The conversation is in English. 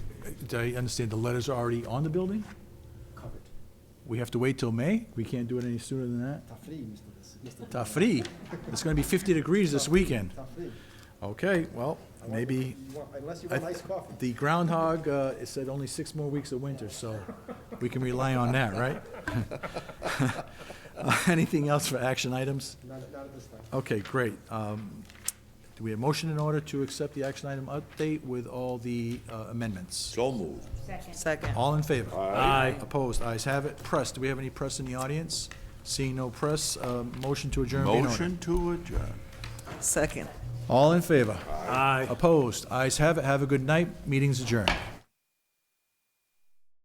but I understand the letters are already on the building? covered. We have to wait till May? We can't do it any sooner than that? Tá frio, Mr. Des- Mr. Ta free. It's gonna be 50 degrees this weekend. Tá frio. Okay, well, I want- maybe, you want- Unless you I want th- iced coffee. the groundhog, uh, it said only six more weeks of winter, so we can rely on that, right? Uh, Anything else for action items? Not, not at this time. Okay, great. Um, Do we have motion in order to accept the action item update with all the uh, amendments? So moved. Second. All in favor? Aye. Opposed? Ayes have it. Press, do we have any press in the audience? Seeing no press, uh, motion to adjourn be in order. Motion to adjourn. Second. All in favor? Aye. Opposed? Ayes have it. Have a good night. Meeting's adjourned.